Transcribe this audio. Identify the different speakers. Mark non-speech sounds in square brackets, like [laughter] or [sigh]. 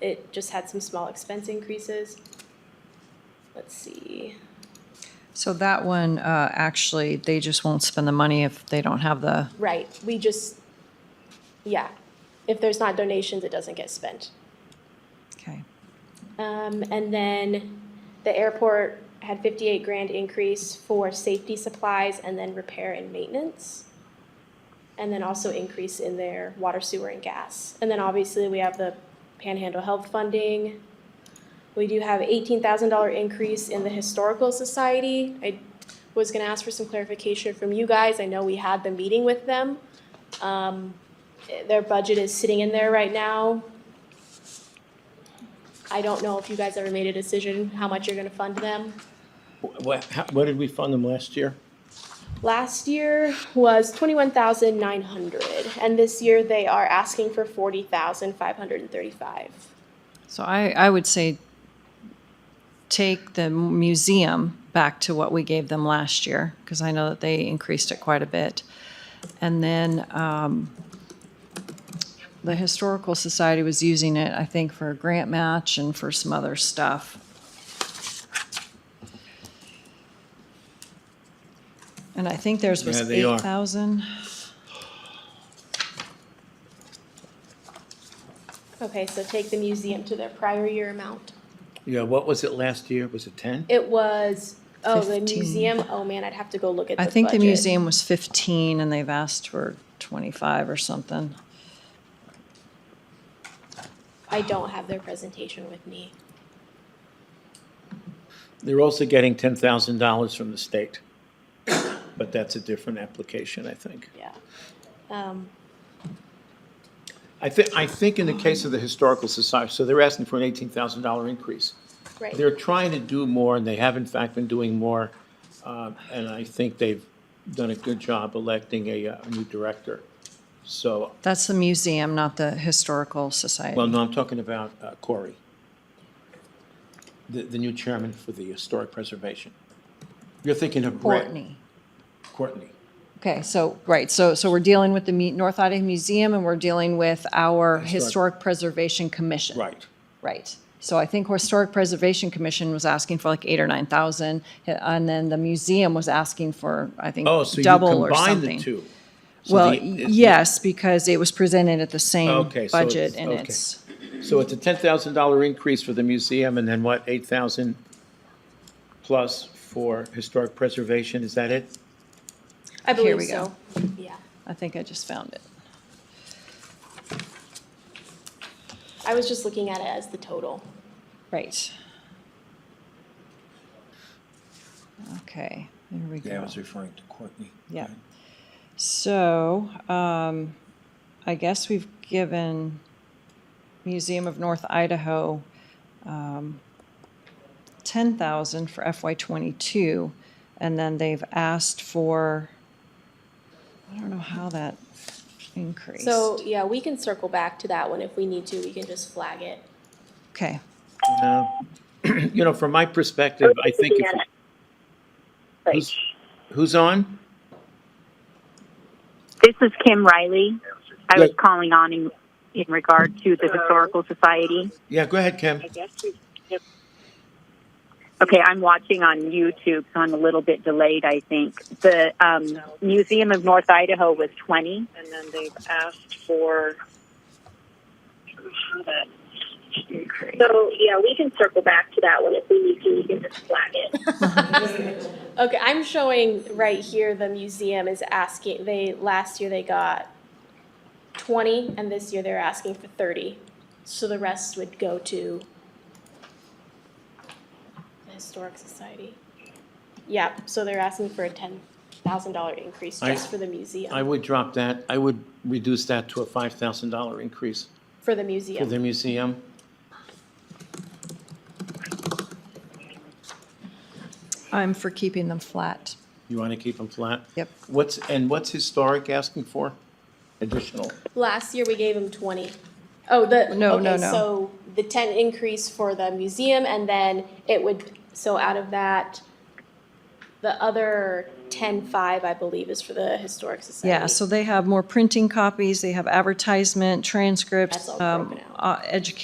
Speaker 1: it just had some small expense increases. Let's see.
Speaker 2: So that one, uh, actually, they just won't spend the money if they don't have the,
Speaker 1: Right, we just, yeah, if there's not donations, it doesn't get spent.
Speaker 2: okay.
Speaker 1: Um, and then the airport had fifty-eight grand increase for safety supplies and then repair and maintenance. And then also increase in their water, sewer and gas. And then obviously we have the Panhandle Health Funding. We do have eighteen thousand dollar increase in the Historical Society. I was gonna ask for some clarification from you guys. I know we had the meeting with them. Um, their budget is sitting in there right now. I don't know if you guys ever made a decision how much you're gonna fund them.
Speaker 3: What, how, what did we fund them last year?
Speaker 1: Last year was twenty-one thousand nine hundred, and this year they are asking for forty thousand five hundred and thirty-five.
Speaker 2: So I, I would say take the museum back to what we gave them last year, because I know that they increased it quite a bit. And then, um, the Historical Society was using it, I think, for a grant match and for some other stuff. And I think theirs
Speaker 3: Yeah,
Speaker 2: was
Speaker 3: they are.
Speaker 2: eight thousand.
Speaker 1: Okay, so take the museum to their prior year amount.
Speaker 3: Yeah, what was it last year? Was it ten?
Speaker 1: It was, oh, the
Speaker 2: Fifteen.
Speaker 1: museum, oh man, I'd have to go look at the
Speaker 2: I
Speaker 1: budget.
Speaker 2: think the museum was fifteen and they've asked for twenty-five or something.
Speaker 1: I don't have their presentation with me.
Speaker 3: They're also getting ten thousand dollars from the state. [coughs] But that's a different application, I think.
Speaker 1: Yeah. Um,
Speaker 3: I thi- I think in the case of the Historical Society, so they're asking for an eighteen thousand dollar increase.
Speaker 1: right.
Speaker 3: They're trying to do more, and they have in fact been doing more, um, and I think they've done a good job electing a, uh, a new director. So,
Speaker 2: That's the museum, not the historical society.
Speaker 3: well, no, I'm talking about uh, Corey, the, the new chairman for the Historic Preservation. You're thinking of Brett.
Speaker 2: Courtney.
Speaker 3: Courtney.
Speaker 2: Okay, so, right, so, so we're dealing with the mu- North Idaho Museum and we're dealing with our Historic Preservation Commission.
Speaker 3: Right.
Speaker 2: Right. So I think Historic Preservation Commission was asking for like eight or nine thousand, eh, and then the museum was asking for, I think,
Speaker 3: Oh, so you
Speaker 2: double or
Speaker 3: combine the
Speaker 2: something.
Speaker 3: two. So
Speaker 2: Well,
Speaker 3: the-
Speaker 2: y-
Speaker 3: it-
Speaker 2: yes, because it was presented at the same
Speaker 3: Okay, so
Speaker 2: budget
Speaker 3: it's-
Speaker 2: and
Speaker 3: okay.
Speaker 2: it's,
Speaker 3: So it's a ten thousand dollar increase for the museum, and then what, eight thousand plus for historic preservation, is that it?
Speaker 1: I believe
Speaker 2: we
Speaker 1: so.
Speaker 2: go.
Speaker 1: Yeah.
Speaker 2: I think I just found it.
Speaker 1: I was just looking at it as the total.
Speaker 2: Right. Okay, there we go.
Speaker 3: referring to Courtney.
Speaker 2: Yeah. So, um, I guess we've given Museum of North Idaho, um, ten thousand for FY twenty-two, and then they've asked for, I don't know how that increased.
Speaker 1: So, yeah, we can circle back to that one if we need to. We can just flag it.
Speaker 2: Okay,
Speaker 3: No. Uh, [clears throat] You know, from my perspective, I think if,
Speaker 4: Like,
Speaker 3: who's, who's on?
Speaker 4: this is Kim Riley. I was
Speaker 3: Yeah.
Speaker 4: calling on in, in regard to the Historical Society.
Speaker 3: Yeah, go ahead, Kim.
Speaker 4: Okay, I'm watching on YouTube, so I'm a little bit delayed, I think. The um, Museum of North Idaho was 20.
Speaker 5: and then they've asked for.
Speaker 1: So, yeah, we can circle back to that one if we need to, we can just flag it. Okay, I'm showing right here, the museum is asking, they, last year they got twenty, and this year they're asking for thirty. So the rest would go to the Historic Society. Yeah, so they're asking for a ten thousand dollar increase
Speaker 3: I-
Speaker 1: just for the
Speaker 3: I
Speaker 1: museum,
Speaker 3: would drop that, I would reduce that to a five thousand dollar increase
Speaker 1: for the
Speaker 3: for
Speaker 1: museum.
Speaker 3: the museum.
Speaker 2: I'm for keeping them flat.
Speaker 3: You want to keep them flat?
Speaker 2: Yep.
Speaker 3: What's, and what's historic asking for? Additional.
Speaker 1: Last year, we gave him twenty. Oh, the,
Speaker 2: No, no,
Speaker 1: okay,
Speaker 2: no.
Speaker 1: so the ten increase for the museum and then it would, so out of that, the other ten-five, I believe, is for the Historic Society.
Speaker 2: Yeah, so they have more printing copies, they have advertisement, transcripts.
Speaker 1: That's all
Speaker 2: um,
Speaker 1: broken out.
Speaker 2: uh, Education